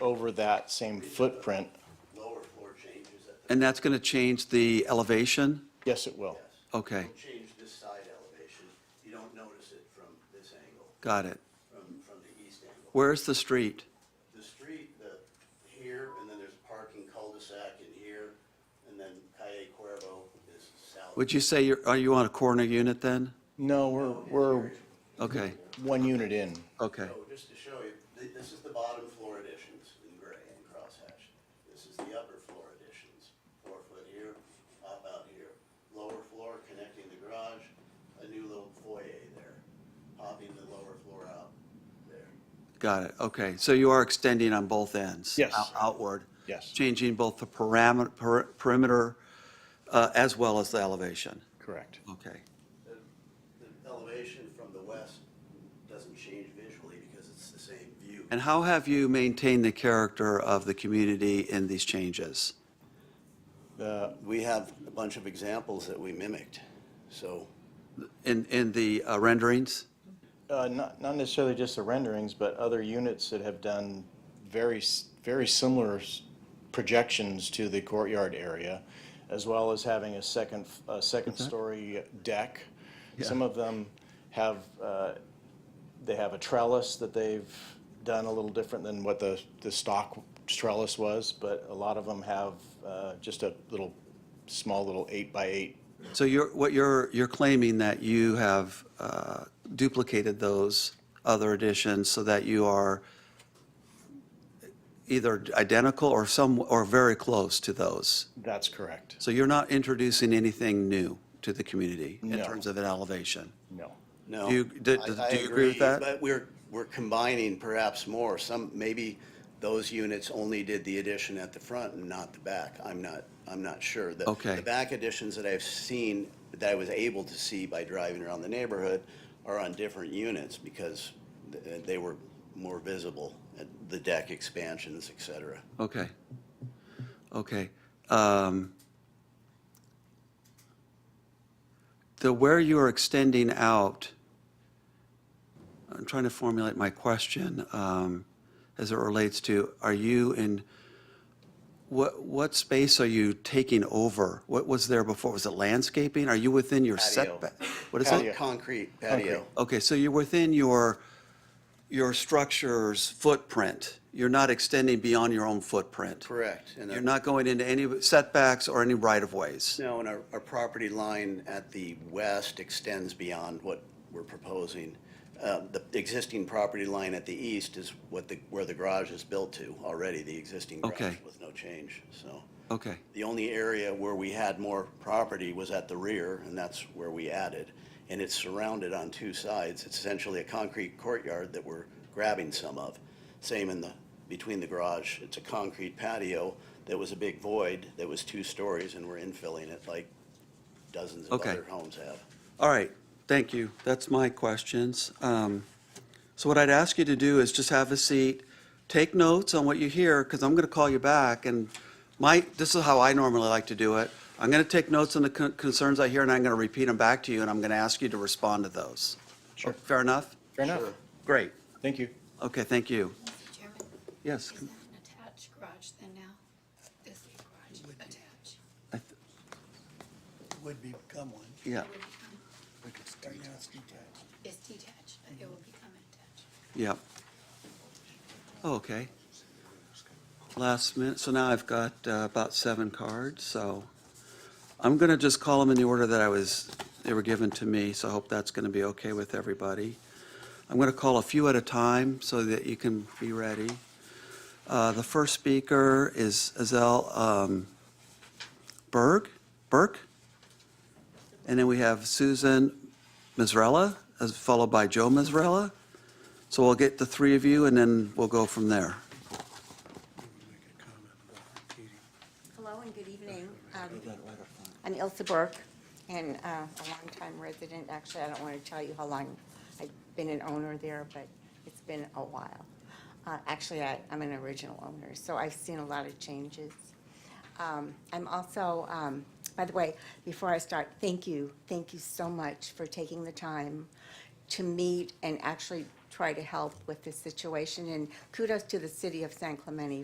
over that same footprint, Lower floor changes at the, And that's going to change the elevation? yes, it will. yes. Okay. It'll Change this side elevation. You don't notice it from this angle, Got it. from, from the east angle. Where's the street? The street, the, here, and then there's parking cul-de-sac in here, and then Calle Cuervo is south. Oh, Would you say you're, are you on a corner unit then? No, we're, we're Okay, one unit in. okay. So just to show you, th- this is the bottom floor additions in gray and crosshatched. This is the upper floor additions, four foot here, up out here. Lower floor connecting the garage, a new little foyer there, popping the lower floor out there. Got it, okay. So you are extending on both ends? Yes. out- Outward? Yes. Changing both the parameter, per- perimeter, uh, as well as the elevation? Correct. Okay, The the elevation from the west doesn't change visually because it's the same view. and how have you maintained the character of the community in these changes? The, We have a bunch of examples that we mimicked, so. In, in the uh, renderings? uh, not, not necessarily just the renderings, but other units that have done very, s- very similar s- projections to the courtyard area, as well as having a second, f- a second story deck. Some of them have, uh, they have a trellis that they've done a little different than what the, the stock trellis was, but a lot of them have, uh, just a little, small little eight by eight So you're, what you're, you're claiming that you have uh, duplicated those other additions so that you are either identical or some, or very close to those. That's correct. So you're not introducing anything new to the community in No. terms of an elevation? No. No. Do you- do- I- do- I do you agree with that? But we're, we're combining perhaps more. Some, maybe those units only did the addition at the front and not the back. I'm not, I'm not sure. The- Okay. The back additions that I've seen, that I was able to see by driving around the neighborhood are on different units because th- they were more visible, uh, the deck expansions, et cetera. Okay. Okay. Um, The, where you are extending out, I'm trying to formulate my question um, as it relates to, are you in, what, what space are you taking over? What was there before? Was it landscaping? Are you within your Patio. setback? What is it? Concrete patio. Okay, so you're within your, your structure's footprint. You're not extending beyond your own footprint. Correct. And You're a- not going into any setbacks or any right-of-ways. No, and our, our property line at the west extends beyond what we're proposing. Uh, The existing property line at the east is what the, where the garage is built to already, the existing garage Okay. with no change, so. Okay, The only area where we had more property was at the rear, and that's where we added. And it's surrounded on two sides. It's essentially a concrete courtyard that we're grabbing some of. Same in the, between the garage. It's a concrete patio that was a big void that was two stories, and we're infilling it like dozens of Okay. other homes have. all right, thank you. That's my questions. Um, So what I'd ask you to do is just have a seat, take notes on what you hear, because I'm going to call you back, and my, this is how I normally like to do it. I'm going to take notes on the con- concerns I hear, and I'm going to repeat them back to you, and I'm going to ask you to respond to those. Sure. Fair enough? Fair enough. Great. Thank you. Okay, thank you. Mr. Chairman, Yes, is that an attached garage then now? This garage attached? I th- would become one. yeah, It will become- Right now it's detached. It's detached, but it will become attached. yeah. Oh, Okay. Last minute, so now I've got uh, about seven cards, so I'm going to just call them in the order that I was, they were given to me, so I hope that's going to be okay with everybody. I'm going to call a few at a time so that you can be ready. Uh, The first speaker is Azell um, Berg, Burke? And then we have Susan Mazzarella, as followed by Joe Mazzarella. So we'll get the three of you, and then we'll go from there. Make a comment about repeating. Hello and good evening. Um, I'm Ilse Burke, and uh, a longtime resident. Actually, I don't want to tell you how long I've been an owner there, but it's been a while. Uh, Actually, I- I'm an original owner, so I've seen a lot of changes. Um, I'm also, um, by the way, before I start, thank you, thank you so much for taking the time to meet and actually try to help with this situation. And kudos to the city of San Clemente